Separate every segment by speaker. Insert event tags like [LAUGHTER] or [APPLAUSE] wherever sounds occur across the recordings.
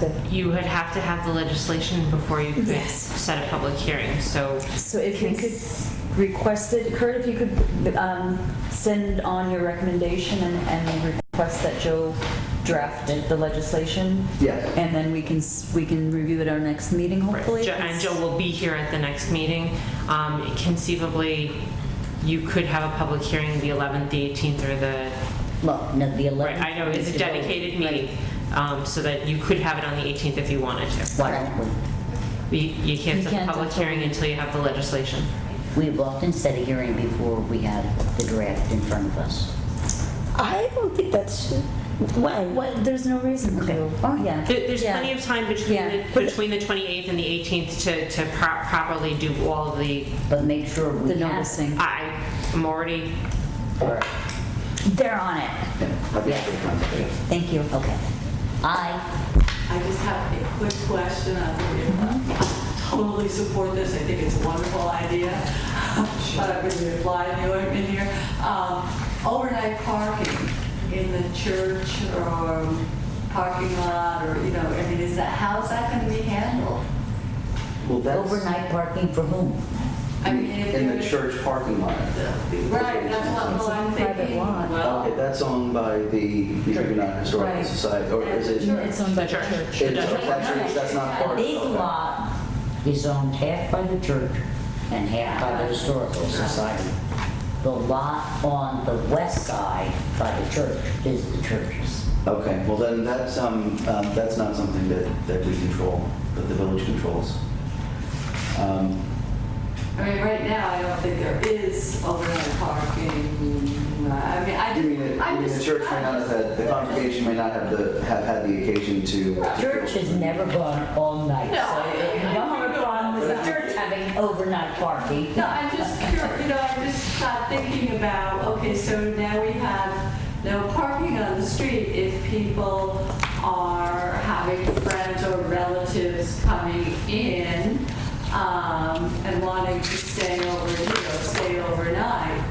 Speaker 1: to,
Speaker 2: You would have to have the legislation before you could
Speaker 1: Yes.
Speaker 2: set a public hearing, so.
Speaker 1: so if you could request it, Kurt, if you could um, send on your recommendation and and request that Joe draft the legislation?
Speaker 3: Yes.
Speaker 1: And then we can, s- we can review it our next meeting, hopefully?
Speaker 2: Jo- And Joe will be here at the next meeting. Um, Conceivably, you could have a public hearing the 11th, the 18th, or the,
Speaker 4: Well, no, the 11th.
Speaker 2: right, I know, it's a
Speaker 4: is the vote.
Speaker 2: dedicated meeting, um, so that you could have it on the 18th if you wanted to.
Speaker 4: Why don't we?
Speaker 2: But You you can't
Speaker 1: You
Speaker 2: set a
Speaker 1: can't
Speaker 2: public
Speaker 1: until-
Speaker 2: hearing until you have the legislation.
Speaker 4: We've often set a hearing before we have the draft in front of us.
Speaker 5: I don't think that's, why, why,
Speaker 1: What, there's no reason to. Yeah.
Speaker 2: There- There's
Speaker 1: Yeah.
Speaker 2: plenty of time between,
Speaker 1: Yeah.
Speaker 2: the- between the 28th and the 18th to to pro- properly do all of the,
Speaker 4: But make sure we
Speaker 1: The
Speaker 4: have.
Speaker 1: noticing.
Speaker 2: I am already,
Speaker 3: All right.
Speaker 1: They're on it.
Speaker 4: Thank you. Okay. I,
Speaker 6: I just have a quick question. I think we totally support this. I think it's a wonderful idea. [LAUGHS] But I would reply to you in here. Um, Overnight parking in the church or um, parking lot or, you know, I mean, is that, how's that going to be handled?
Speaker 3: Well, that's
Speaker 4: overnight parking for whom?
Speaker 6: I mean, if
Speaker 3: in the
Speaker 6: you're-
Speaker 3: church parking lot.
Speaker 6: Right, that's what well, I'm
Speaker 1: It's a private
Speaker 6: thinking.
Speaker 1: lot.
Speaker 6: Well,
Speaker 3: Okay, that's owned by the Huguenot Historical
Speaker 1: Right.
Speaker 3: Society, or is it?
Speaker 1: It's on the
Speaker 2: The church.
Speaker 1: church.
Speaker 3: It's a church, that's not
Speaker 4: A
Speaker 3: part of
Speaker 4: big
Speaker 3: it.
Speaker 4: lot is owned half by the church and half by the historical society. The lot on the west side by the church is the church's.
Speaker 3: Okay, well then, that's, um, um, that's not something that, that we control, that the village controls. Um,
Speaker 6: I mean, right now, I don't think there is overnight parking. I mean, I
Speaker 3: You
Speaker 6: just,
Speaker 3: mean, that- you
Speaker 6: I'm
Speaker 3: mean
Speaker 6: just.
Speaker 3: the church may not have had, the congregation may not have the, have had the occasion to.
Speaker 4: Church has never gone all night,
Speaker 6: No,
Speaker 4: so
Speaker 6: I-
Speaker 4: you don't have a problem with the church having overnight parking.
Speaker 6: No, I'm just curious, you know, I just got thinking about, okay, so now we have no parking on the street if people are having friends or relatives coming in um, and wanting to stay over, you know, stay overnight.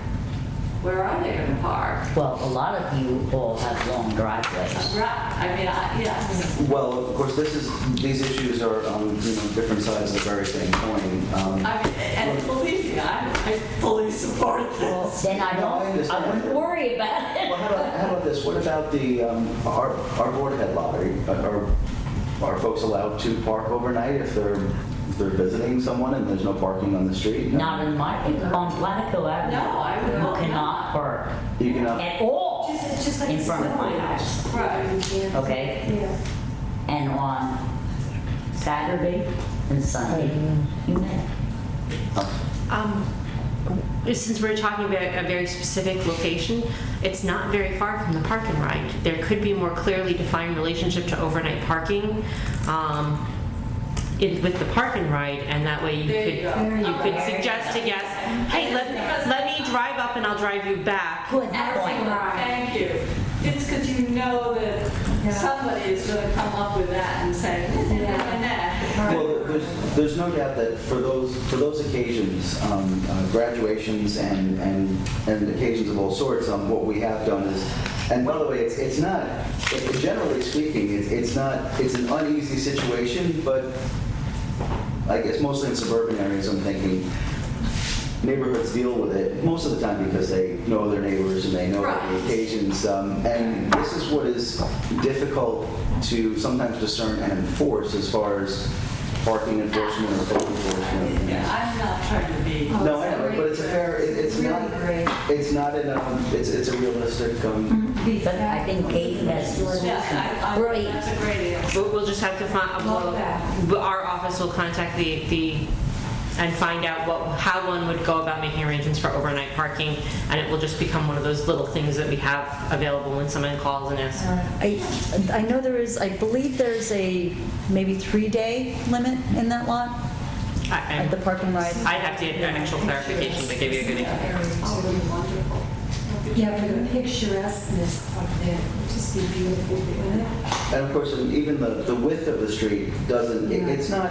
Speaker 6: Where are they going to park?
Speaker 4: Well, a lot of you all have long driveways.
Speaker 6: Right, I mean, I, yeah.
Speaker 3: Well, of course, this is, these issues are on, you know, different sides of the very same coin. Um,
Speaker 6: I mean, and believe me, I, I fully support
Speaker 4: Well,
Speaker 6: this.
Speaker 4: Then I
Speaker 3: No, I
Speaker 4: don't, I
Speaker 3: understand.
Speaker 4: wouldn't worry about it.
Speaker 3: Well, how about, how about this, what about the, um, our, our board head lottery? Are, are folks allowed to park overnight if they're, if they're visiting someone and there's no parking on the street?
Speaker 4: Not in my, on Platico Avenue.
Speaker 6: No, I would
Speaker 4: You
Speaker 6: hope
Speaker 4: cannot
Speaker 6: not.
Speaker 4: park
Speaker 3: You cannot,
Speaker 4: at all in front of my house,
Speaker 6: Right.
Speaker 4: okay? And on Saturday and Sunday, you may.
Speaker 2: Um, Since we're talking about a very specific location, it's not very far from the park and ride. There could be a more clearly defined relationship to overnight parking um, in- with the park and ride, and that way you
Speaker 6: There you go.
Speaker 2: could, you could suggest to guests, hey, let, let me drive up and I'll drive you back.
Speaker 4: Good
Speaker 6: Excellent,
Speaker 4: point.
Speaker 6: thank you. It's because you know that somebody is going to come up with that and say, "Nah, nah, nah."
Speaker 3: well, there's, there's no doubt that for those, for those occasions, um, uh, graduations and, and, and occasions of all sorts, um, what we have done is, and by the way, it's, it's not, it- generally speaking, it's, it's not, it's an uneasy situation, but I guess mostly in suburban areas, I'm thinking, neighborhoods deal with it most of the time because they know their neighbors and they know the
Speaker 6: Right.
Speaker 3: occasions. Um, and this is what is difficult to sometimes discern and enforce as far as parking enforcement or code enforcement.
Speaker 6: I'm not trying to be.
Speaker 3: No, I know, but it's a fair, it, it's not, it's not in a, it's, it's a realistic, um,
Speaker 4: But I think Kate has the
Speaker 6: Yeah, I- I-
Speaker 4: Great.
Speaker 6: that's a great idea.
Speaker 2: We'll we'll just have to find,
Speaker 6: Love that.
Speaker 2: we'll- our office will contact the, the and find out what, how one would go about making arrangements for overnight parking, and it will just become one of those little things that we have available when someone calls and asks.
Speaker 1: I, I know there is, I believe there's a maybe three-day limit in that lot
Speaker 2: I-
Speaker 1: at the
Speaker 2: I'm-
Speaker 1: park and ride.
Speaker 2: I'd have to get an actual clarification to give you a good answer.
Speaker 6: Oh,
Speaker 7: Yeah, for the picturesqueness of it, it'd just be beautiful, wouldn't it?
Speaker 4: Mm-hmm.
Speaker 3: and of course, even the, the width of the street doesn't, it- it's not,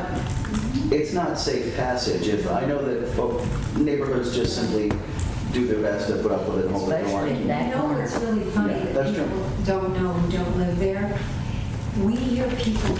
Speaker 4: Mm-hmm.
Speaker 3: it's not safe passage. If, I know that folk, neighborhoods just simply do their best to put up with it and hold their
Speaker 4: Especially
Speaker 3: own.
Speaker 4: in that
Speaker 7: You know what's really funny
Speaker 3: Yeah,
Speaker 7: that
Speaker 3: that's true.
Speaker 7: people don't know who don't live there? We hear people